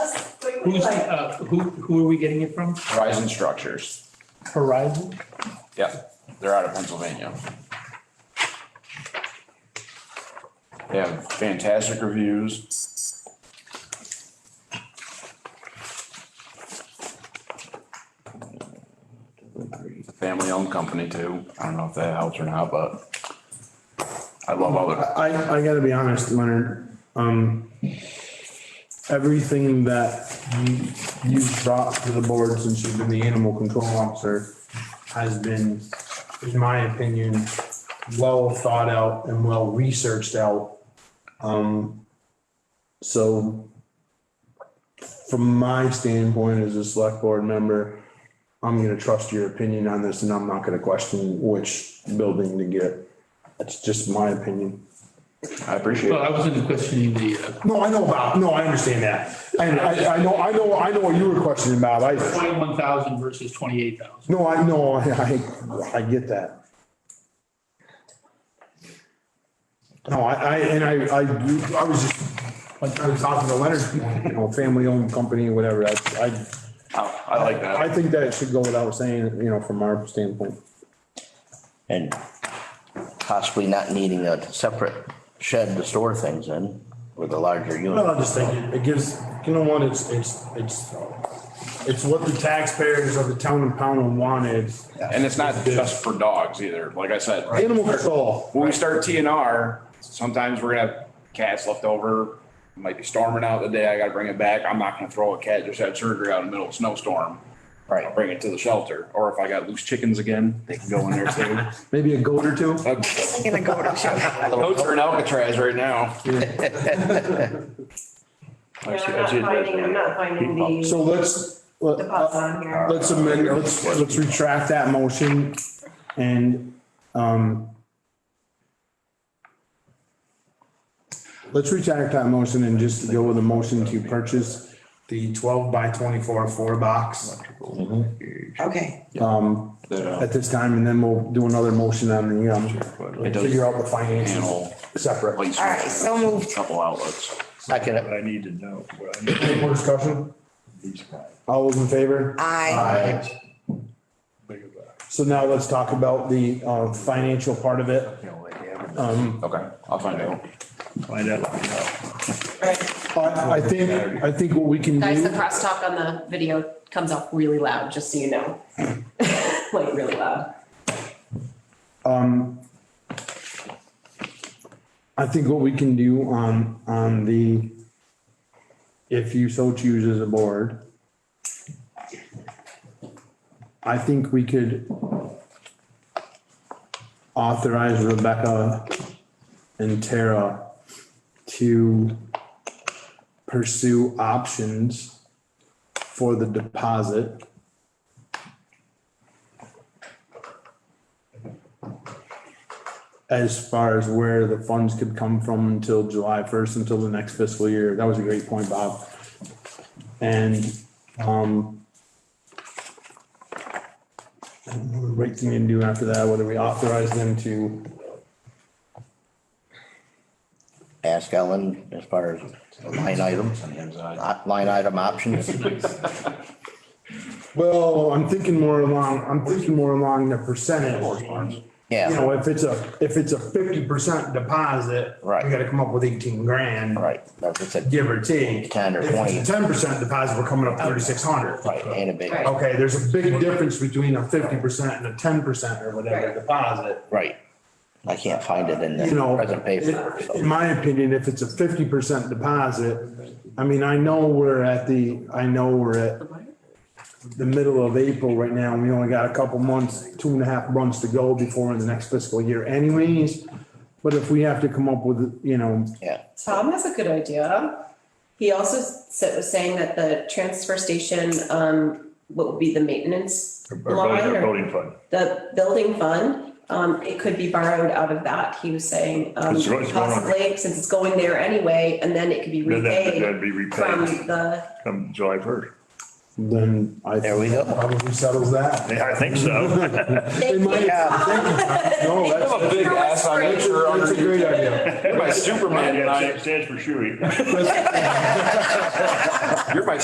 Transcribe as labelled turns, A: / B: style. A: Who's, uh, who, who are we getting it from?
B: Horizon Structures.
A: Horizon?
B: Yeah, they're out of Pennsylvania. They have fantastic reviews. It's a Family-owned company too. I don't know if that helps or not, but I love all the,
C: I, I gotta be honest, Leonard, um, everything that you, you've brought to the board since you've been the animal control officer has been, in my opinion, well thought out and well researched out. Um, so from my standpoint as a select board member, I'm gonna trust your opinion on this and I'm not gonna question which building to get. That's just my opinion.
B: I appreciate
A: Well,
B: it.
A: I wasn't questioning the, uh,
C: No, I know, Bob. No, I understand that. And I, I know, I know, I know what you were questioning, Bob. I,
A: twenty-one thousand versus twenty-eight thousand.
C: no, I know, I, I- I get that. No, I, I, and I, I, do- I was just, like, I was talking to Leonard, you know, family-owned company, whatever. I, I,
B: I I like that.
C: I think that should go without saying, you know, from our standpoint.
D: and possibly not needing a separate shed to store things in with a larger
C: Well,
D: unit.
C: I just think it- it gives, you know what, it's, it's, it's, it's what the taxpayers of the town of Pownell wanted.
B: And it's not just for dogs either. Like I said,
C: Animal control.
B: when we start TNR, sometimes we're gonna have cats left over. Might be storming out the day. I gotta bring it back. I'm not gonna throw a cat just had surgery out in the middle of a snowstorm. I'll
D: Right.
B: bring it to the shelter. Or if I got loose chickens again, they can go in there too.
C: Maybe a goat or two?
B: Uh,
E: Gonna go to show.
B: Goats are in Alcatraz right now.
E: I'm not finding, I'm not finding the,
C: So let's,
E: the pots on here.
C: let's amend, let's, let's retract that motion and, um, let's retract that motion and just go with a motion to purchase the twelve by twenty-four four box Um,
F: Okay,
C: at this time, and then we'll do another motion on the, um, figure out the finances separate.
F: all right, so moved.
B: Couple outlets.
D: Second it.
G: What I need to know, what I need
C: Any more discussion?
G: these guys.
C: All those in favor?
F: Aye.
G: Big of a-
C: So now let's talk about the, uh, financial part of it. Um,
G: you know, they have it.
B: Okay, I'll find out.
G: Find out, let me know.
C: I, I think, I think what we can do.
E: Guys, the crosstalk on the video comes off really loud, just so you know. Like really loud.
C: Um, I think what we can do on, on the, if you so choose as a board. I think we could authorize Rebecca and Tara to pursue options for the deposit. as far as where the funds could come from until July first, until the next fiscal year. That was a great point, Bob. And, um, I don't know the right thing to do after that, whether we authorize them to,
D: Ask Ellen as far as the line items, uh, line item options.
C: well, I'm thinking more along, I'm thinking more along the percentage. You
D: Yeah,
C: know, if it's a, if it's a fifty percent deposit.
D: Right.
C: You gotta come up with eighteen grand.
D: right. That's what I said.
C: Give or take.
D: 10 or
C: Ten percent deposit, we're coming up thirty-six hundred.
D: Right, ain't a big,
E: Right.
C: Okay, there's a big difference between a fifty percent and a ten percent or whatever
E: Right.
C: deposit.
D: right. I can't find it in
C: You
D: the
C: know,
D: present paper.
C: it- in
D: so.
C: my opinion, if it's a fifty percent deposit, I mean, I know we're at the, I know we're at the middle of April right now. and We only got a couple months, two and a half months to go before the next fiscal year anyways. But if we have to come up with, you know,
D: Yeah,
E: Tom has a good idea. He also said, was saying that the transfer station, um, what would be the maintenance
G: Our
E: line
G: voting- our
E: or
G: voting fund.
E: the building fund, um, it could be borrowed out of that, he was saying. Um,
G: It's going- it's going on.
E: possibly, since it's going there anyway, and then it could be
G: Then that-
E: repaid
G: that'd be
E: from
G: repaid
E: the,
G: come July first.
C: then I.
D: There we go.
C: Probably settles that.
G: I think so.
C: In my- No, that's,
B: a big ass on that shirt
C: that's a great idea.
B: You're my Superman
G: Yeah,
B: tonight.
G: it stands for Shuey.
B: You're my